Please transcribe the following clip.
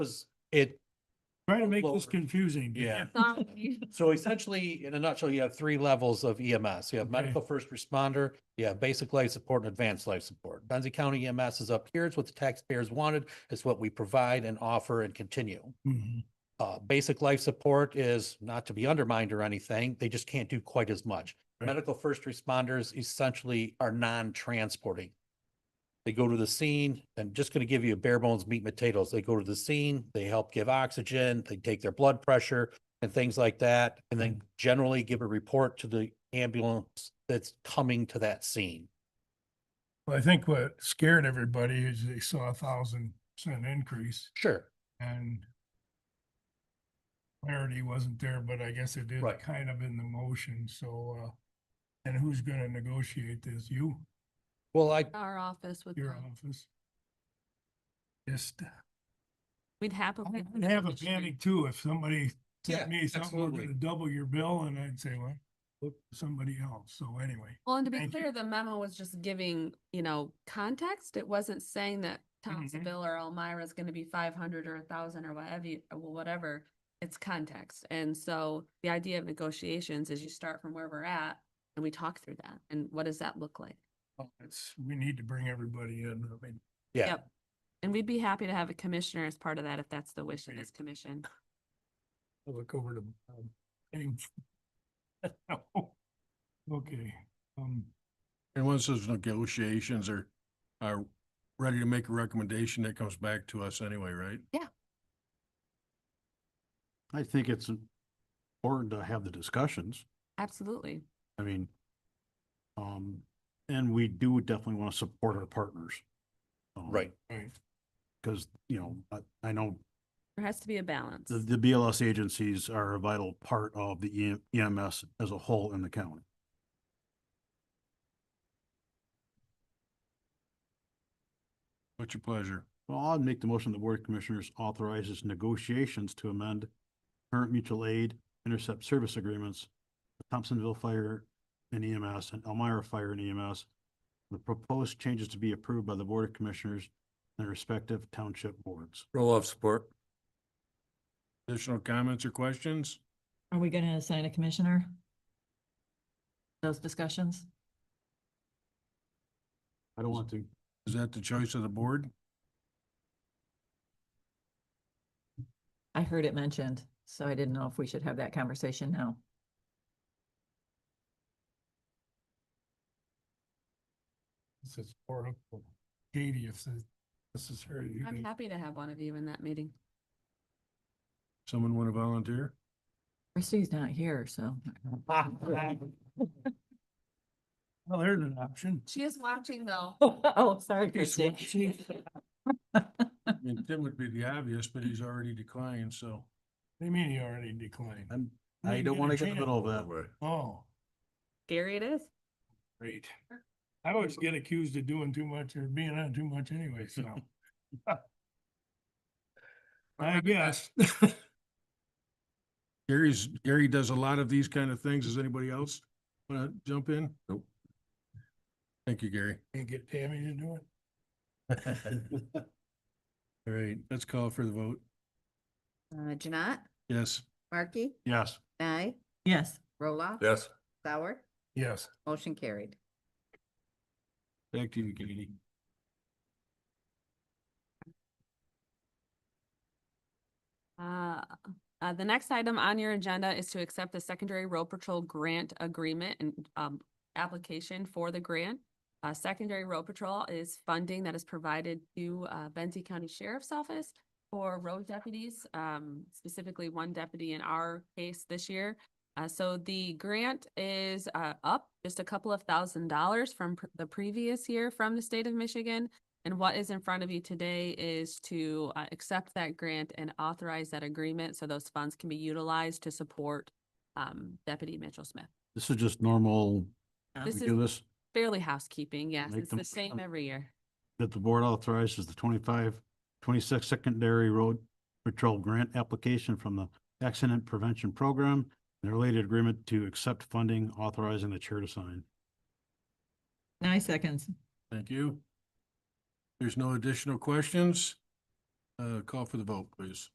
because it, Trying to make this Lower. confusing. Yeah. Not- so essentially, in a nutshell, you have three levels of EMS. You have Okay. medical first responder, you have basic life support and advanced life support. Benzie County EMS is up here. It's what the taxpayers wanted. It's what we provide and offer and continue. Mhm. Uh, basic life support is not to be undermined or anything. They just can't do quite as much. Right. Medical first responders essentially are non-transporting. They go to the scene and just going to give you a bare bones meat and potatoes. They go to the scene, they help give oxygen, they take their blood pressure and things like that. And then generally give a report to the ambulance that's coming to that scene. Well, I think what scared everybody is they saw a thousand percent increase Sure. and clarity wasn't there, but I guess it is Right. kind of in the motion, so, uh, and who's gonna negotiate this? You, Well, I, Our office would, your Um. like- office? Just, we'd have a. I'd have a panic too if somebody Yeah, sent me something, we're absolutely. gonna double your bill, and I'd say, well, Whoop. somebody else, so anyway. Well, and to be Thank you. clear, the memo was just giving, you know, context. It wasn't saying that Mhm. Townsville or Elmira is gonna be five hundred or a thousand or whatever, you- or whatever. It's context. And so the idea of negotiations is you start from where we're at and we talk through that. And what does that look like? Oh, It's, we need to bring everybody in, I mean, yeah, Yep. And we'd be happy to have a commissioner as part of that if that's the wish of Okay. this commission. I'll look over to. um, any- Okay, um, And once those negotiations are, are ready to make a recommendation, that comes back to us anyway, right? I think it's important to have the discussions. Absolutely. I mean, um, and we do definitely want to support our partners. right. right, Because, you know, I, I know There has to be a balance. the, the BLS agencies are a vital part of the E- EMS as a whole in the county. What's your pleasure? Well, I'll make the motion the Board of Commissioners authorizes negotiations to amend current mutual aid intercept service agreements, with Thompsonville Fire and EMS and Elmira Fire and EMS. The proposed changes to be approved by the Board of Commissioners and their respective township boards. Roll off support. Additional comments or questions? Are we gonna assign a commissioner? Those discussions? I don't want to. Is that the choice of the board? I heard it mentioned, so I didn't know if we should have that conversation now. this is for Katie, if this- this is her. you I'm can- happy to have one of you in that meeting. Someone want to volunteer? Christie's not here, so. Well, there's an option. She is watching though. Oh, sorry, Guess Christie. what, chief? I mean, Tim would be the obvious, but he's already declined, so. What do you mean he already declined? I'm, You I didn't don't get a want to get in chance. the middle of that. Oh, Gary it is. great. I always get accused of doing too much or being on too much anyway, so. I guess. Gary's, Gary does a lot of these kind of things. Does anybody else want to jump in? Nope. Thank you, Gary. Can't get Tammy to do it. All right, let's call for the vote. Uh, Janat, Yes. Markey, Yes. Nye, Yes, Roloff. Yes. Sauer, Yes. motion carried. Back to you, Katie. Uh, uh, the next item on your agenda is to accept the secondary road patrol grant agreement and, um, application for the grant. Uh, secondary road patrol is funding that is provided to, uh, Benzie County Sheriff's Office for road deputies, um, specifically one deputy in our case this year. Uh, so the grant is, uh, up just a couple of thousand dollars from pr- the previous year from the state of Michigan. And what is in front of you today is to uh, accept that grant and authorize that agreement so those funds can be utilized to support um, Deputy Mitchell Smith. This is just normal. We This is do this, Fairly housekeeping, yes. Make It's them the same come. every year. that the board authorizes the 25, 26 secondary road patrol grant application from the Accident Prevention Program and the related agreement to accept funding authorizing the chair to sign. nine seconds. Thank you. There's no additional questions. Uh, call for the vote, please.